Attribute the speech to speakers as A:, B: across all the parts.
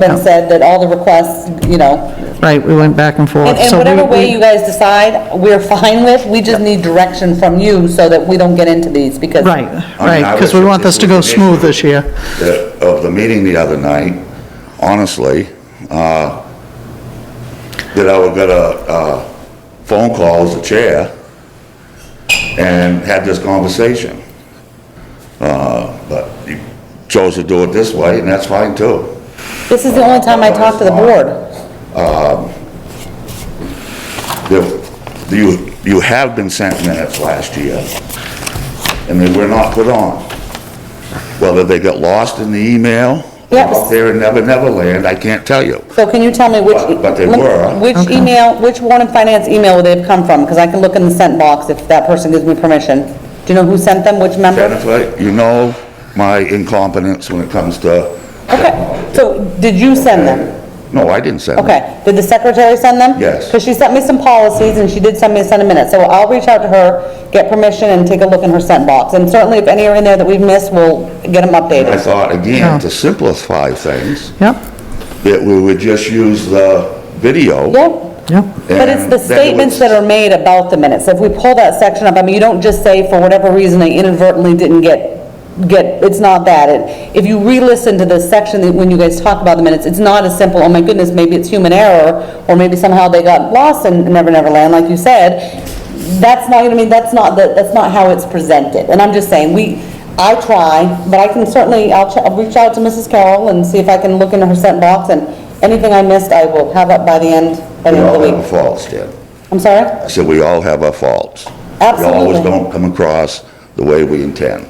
A: been said that all the requests, you know,
B: Right, we went back and forth.
A: and and
B: So we-
A: whatever way
B: we-
A: you guys decide, we're fine with, we just need direction from you so that we don't get into these, because.
B: Right,
C: I mean,
B: right,
C: I
B: because
C: was-
B: we want this to go smooth this year.
C: the- of the meeting the other night, honestly, uh, that I would get a, uh phone call as the chair and had this conversation. Uh, But you chose to do it this way, and that's fine too.
A: This is the only time I talk to the board.
C: The- You, you have been sent minutes last year, and they were not put on. Whether they got lost in the email, or
A: Yes.
C: out there in Never Never Land, I can't tell you.
A: So can you tell me which?
C: But- but they were.
A: Which email, which Warren Finance email would they have come from? Because I can look in the sent box if that person gives me permission. Do you know who sent them, which member?
C: Jennifer, you know my incompetence when it comes to...
A: Okay, so did you send them?
C: No, I didn't send it.
A: Okay, did the secretary send them?
C: Yes.
A: Because she sent me some policies and she did send me a send a minute. So I'll reach out to her, get permission and take a look in her sent box. And certainly if any are in there that we've missed, we'll get them
C: I
A: updated.
C: thought, again, to simplify things,
B: Yep,
C: that we would just use the video.
A: Yep.
B: yep.
A: But it's the
C: and then it
A: statements
C: would-
A: that are made about the minutes. If we pull that section up, I mean, you don't just say, for whatever reason, they inadvertently didn't get, get, it's not that. It- If you re-listen to this section, that when you guys talk about the minutes, it's not as simple, oh my goodness, maybe it's human error, or maybe somehow they got lost in Never Never Land, like you said. That's not, I mean, that's not, the- that's not how it's presented. And I'm just saying, we, I try, but I can certainly, I'll, ch- I'll reach out to Mrs. Carroll and see if I can look into her sent box, and anything I missed, I will have up by the end, by
C: We
A: the end of
C: all
A: the
C: have
A: week.
C: our faults, Deb.
A: I'm sorry?
C: I said, we all have our faults. We always
A: Absolutely.
C: don't come across the way we intend.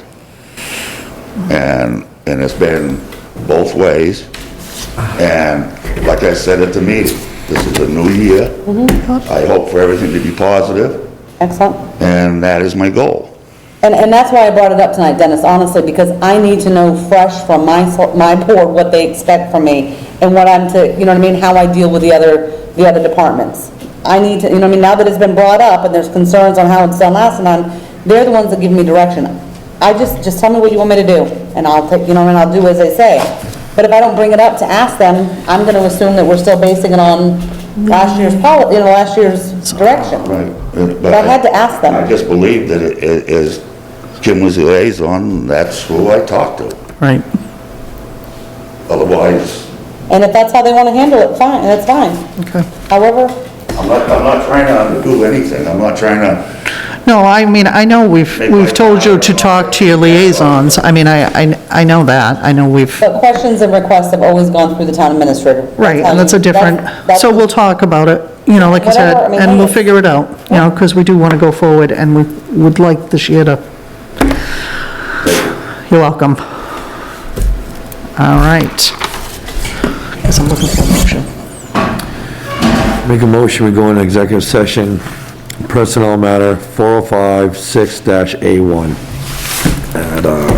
C: And, and it's been both ways. And like I said at the meeting, this is a new year.
A: Mm-hmm.
C: I hope for everything to be positive,
A: Excellent.
C: and that is my goal.
A: And, and that's why I brought it up tonight, Dennis, honestly, because I need to know fresh from my, so- my board what they expect from me and what I'm to, you know what I mean, how I deal with the other, the other departments. I need to, you know what I mean, now that it's been brought up and there's concerns on how it's done last time, they're the ones that give me direction. I just, just tell me what you want me to do and I'll take, you know, and I'll do as they say. But if I don't bring it up to ask them, I'm gonna assume that we're still basing it on last year's poli, you know, last year's direction.
C: Right.
A: But I had to ask them.
C: Uh, I just believe that it it is, Kim was the liaison, that's who I talked to.
B: Right,
C: Otherwise,
A: And if that's how they want to handle it, fine, that's fine.
B: okay.
A: However,
C: I'm not, I'm not trying to undo anything, I'm not trying to,
B: No, I mean, I know we've,
C: Maybe
B: we've
C: like-
B: told you to talk to your liaisons. I mean, I, I I know that, I know we've,
A: but questions and requests have always gone through the town administrator.
B: right, and that's a different,
A: that's-
B: so we'll talk about it, you know, like I said,
A: Whatever, I mean,
B: and we'll
A: hey.
B: figure it out, you know, because we do want to go forward, and we would like this year to... You're welcome. All right. Because I'm looking for a motion.
D: Make a motion, we go into executive session, personnel matter 4056-A1 at uh,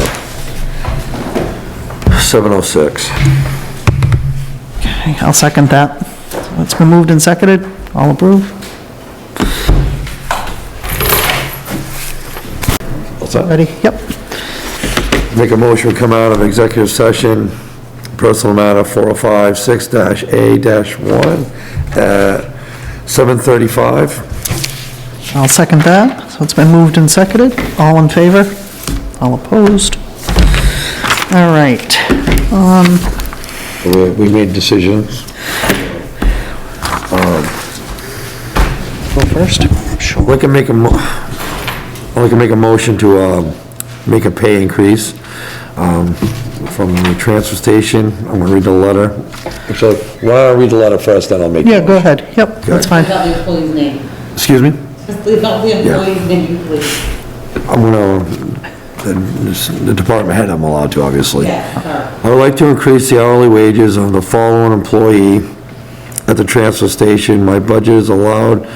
D: 7:06.
B: Okay, I'll second that. So It's been moved and seconded, all approve?
D: What's that?
B: Ready? Yep.
D: Make a motion, we come out of executive session, personal matter 4056-A-1 at 7:35.
B: I'll second that. So it's been moved and seconded. All in favor? All opposed? All right.
D: We- We made decisions.
B: Go first. Sure.
D: We can make a, mo- we can make a motion to, um, make a pay increase, um, from the transfer station. I'm gonna read the letter. Actually, why don't I read the letter first, then I'll make.
B: Yeah, go ahead. Yep, that's fine.
A: Without the employee's name.
D: Excuse me?
A: Just leave out the employee's name, please.
D: I'm gonna, the, the department head I'm allowed to, obviously.
A: Yeah,
D: I would like to increase the hourly wages of the following employee at the transfer station. My budget is allowed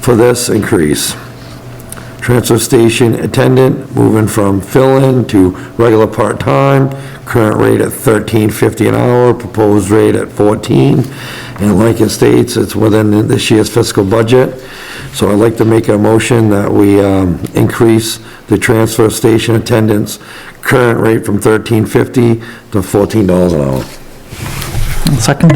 D: for this increase. Transfer station attendant, moving from fill-in to regular part-time, current rate at $13.50 an hour, proposed rate at 14. And like it states, it's within this year's fiscal budget. So I'd like to make a motion that we um, increase the transfer station attendant's current rate from $13.50 to $14 an hour.
B: Second